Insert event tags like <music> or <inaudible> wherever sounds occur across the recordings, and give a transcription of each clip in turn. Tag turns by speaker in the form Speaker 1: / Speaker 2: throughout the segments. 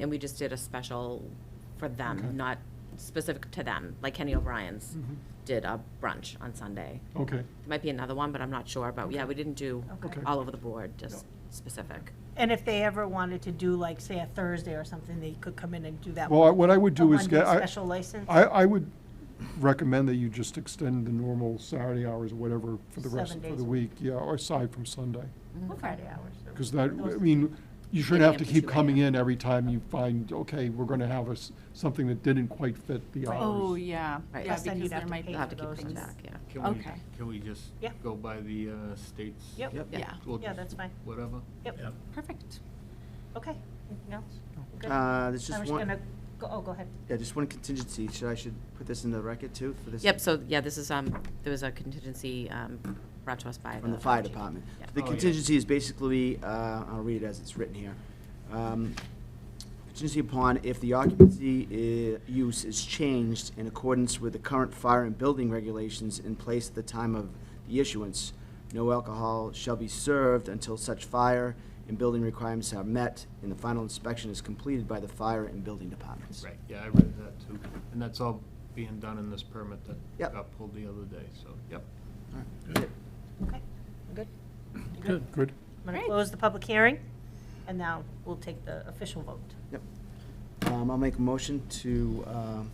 Speaker 1: and we just did a special for them, not specific to them, like Kenny O'Brien's did a brunch on Sunday.
Speaker 2: Mm-hmm. Okay,
Speaker 1: There might be another one, but I'm not sure, but yeah, we didn't do
Speaker 2: Okay.
Speaker 1: all over the board, just specific.
Speaker 3: And if they ever wanted to do like, say, a Thursday or something, they could come in and do that.
Speaker 2: well, I- what I would
Speaker 3: a
Speaker 2: do is
Speaker 3: one-day
Speaker 2: get, I,
Speaker 3: Special license.
Speaker 2: I, I would recommend that you just extend the normal Saturday hours or whatever for the rest,
Speaker 3: Seven
Speaker 2: for
Speaker 3: days
Speaker 2: the
Speaker 3: a Mm-hmm.
Speaker 2: week, yeah, or aside from Sunday.
Speaker 3: Or Friday hours.
Speaker 2: Because that, I
Speaker 3: Those-
Speaker 2: mean, you shouldn't have to
Speaker 1: have to
Speaker 2: keep
Speaker 1: do it,
Speaker 2: coming in every time you find, okay, we're gonna have a s something that didn't quite fit the
Speaker 3: Right.
Speaker 4: Oh,
Speaker 2: hours.
Speaker 4: yeah,
Speaker 1: Right.
Speaker 4: yeah,
Speaker 1: Plus
Speaker 3: then you'd
Speaker 4: because
Speaker 3: have
Speaker 4: there
Speaker 3: to pay
Speaker 4: might be
Speaker 1: We'll have to keep
Speaker 3: those
Speaker 1: coming
Speaker 3: is-
Speaker 1: back, yeah.
Speaker 5: Can we,
Speaker 4: Okay.
Speaker 5: can we just
Speaker 3: Yeah.
Speaker 5: go by the uh, state's?
Speaker 3: Yep. Yep.
Speaker 1: Yeah.
Speaker 5: we'll
Speaker 3: Yeah,
Speaker 5: just-
Speaker 3: that's fine.
Speaker 5: Whatever.
Speaker 3: Yep,
Speaker 4: perfect.
Speaker 3: okay. Anything else? Good. I
Speaker 6: Uh, There's just
Speaker 3: was
Speaker 6: one,
Speaker 3: gonna, go- oh, go ahead.
Speaker 6: yeah, just one contingency, should I should put this in the record too, for this?
Speaker 1: Yep, so, yeah, this is, um, there was a contingency, um, brought to us by the.
Speaker 6: From the fire department.
Speaker 1: Yeah.
Speaker 6: The
Speaker 5: Oh, yeah.
Speaker 6: contingency is basically, uh, I'll read it as it's written here. Um, Contingency upon if the occupancy i- use is changed in accordance with the current fire and building regulations in place at the time of the issuance, no alcohol shall be served until such fire and building requirements are met and the final inspection is completed by the fire and building departments.
Speaker 5: Right, yeah, I read that too. And that's all being done in this permit that
Speaker 6: Yep.
Speaker 5: got pulled the other day, so, yep.
Speaker 3: Okay, good.
Speaker 2: Good. Good.
Speaker 3: I'm gonna
Speaker 4: Great.
Speaker 3: close the public hearing, and now we'll take the official vote.
Speaker 6: Yep. Um, I'll make a motion to, um,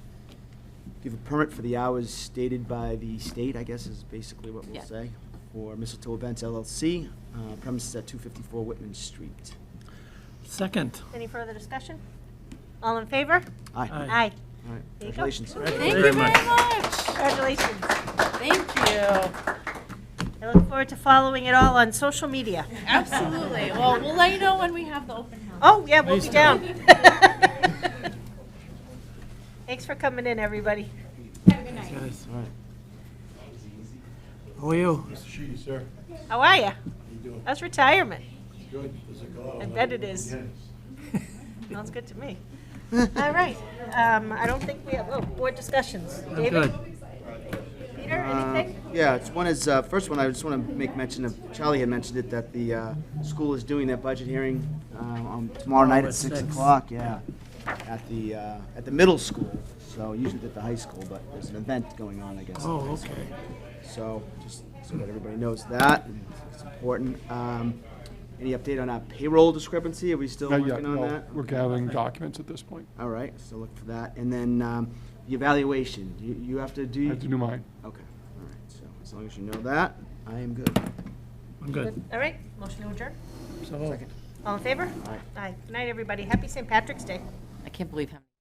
Speaker 6: give a permit for the hours stated by the state, I guess is basically what we'll
Speaker 1: Yeah.
Speaker 6: say, for Mistletoe Events LLC, uh, premises at two fifty-four Whitman Street.
Speaker 7: Second.
Speaker 3: Any further discussion? All in favor?
Speaker 6: Aye.
Speaker 7: Aye.
Speaker 3: Aye.
Speaker 6: All right,
Speaker 3: There you go.
Speaker 6: congratulations.
Speaker 4: Thank you
Speaker 7: very
Speaker 4: very
Speaker 7: much.
Speaker 4: much.
Speaker 3: Congratulations.
Speaker 4: Thank you.
Speaker 3: I look forward to following it all on social media.
Speaker 4: Absolutely. Well, we'll let you know when we have the open house.
Speaker 3: Oh, yeah, we'll be
Speaker 7: Nice
Speaker 3: down. <laughs> Thanks for coming in, everybody.
Speaker 7: Guys,
Speaker 6: All right.
Speaker 7: How are you?
Speaker 8: Mr. Sheedy, sir,
Speaker 3: How are you?
Speaker 8: how you doing?
Speaker 3: How's retirement?
Speaker 8: Good, there's a glow.
Speaker 3: I bet it is.
Speaker 8: Yes.
Speaker 3: Sounds good to me.
Speaker 6: <laughs>
Speaker 3: All right, um, I don't think we have, oh, board discussions.
Speaker 7: I'm
Speaker 3: David,
Speaker 7: good.
Speaker 3: Peter,
Speaker 6: Uh,
Speaker 3: anything?
Speaker 6: Yeah, it's one is, uh, first one, I just want to make mention of, Charlie had mentioned it, that the uh, school is doing their budget hearing uh, on tomorrow night at
Speaker 7: at
Speaker 6: six
Speaker 7: six.
Speaker 6: o'clock, yeah, at the, uh, at the middle school, so usually at the high school, but there's an event going on, I guess. at the high
Speaker 7: Oh,
Speaker 6: school.
Speaker 7: okay.
Speaker 6: So, just so that everybody knows that, and it's important. Um, Any update on our payroll discrepancy? Are we still
Speaker 2: Not yet,
Speaker 6: working on
Speaker 2: no,
Speaker 6: that?
Speaker 2: we're gathering documents at this point.
Speaker 6: All right, so look for that. And then um, the evaluation, you you have to
Speaker 2: I
Speaker 6: do?
Speaker 2: have to do mine.
Speaker 6: Okay, all right, so as long as you know that, I am good.
Speaker 7: I'm good.
Speaker 3: All right, motion to adjourn.
Speaker 7: So.
Speaker 3: All in favor?
Speaker 6: Aye.
Speaker 3: Aye. Good night, everybody. Happy St. Patrick's Day.
Speaker 1: I can't believe how many